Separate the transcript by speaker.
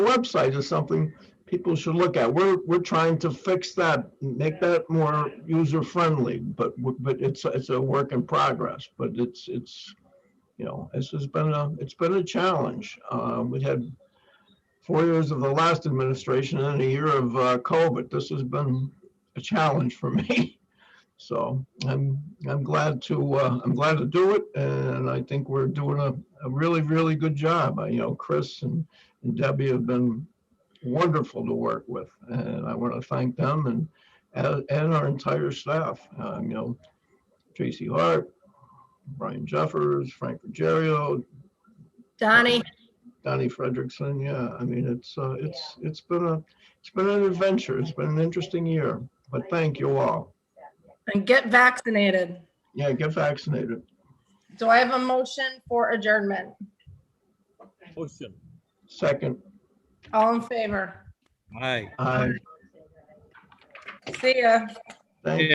Speaker 1: website is something people should look at. We're, we're trying to fix that, make that more user-friendly, but, w- but it's, it's a work in progress, but it's, it's, you know, this has been a, it's been a challenge. Uh, we had four years of the last administration and a year of uh, COVID. This has been a challenge for me. So I'm, I'm glad to, uh, I'm glad to do it. And I think we're doing a, a really, really good job. I, you know, Chris and and Debbie have been wonderful to work with. And I want to thank them and, and and our entire staff, um, you know, Tracy Hart, Brian Jeffers, Frank Ruggiero,
Speaker 2: Donnie,
Speaker 1: Donnie Frederickson. Yeah, I mean, it's, uh, it's, it's been a, it's been an adventure. It's been an interesting year, but thank you all.
Speaker 2: and get vaccinated.
Speaker 1: Yeah, get vaccinated.
Speaker 2: Do I have a motion for adjournment?
Speaker 3: Motion.
Speaker 1: Second,
Speaker 2: All in favor?
Speaker 3: Aye.
Speaker 1: I,
Speaker 2: See ya.
Speaker 1: thank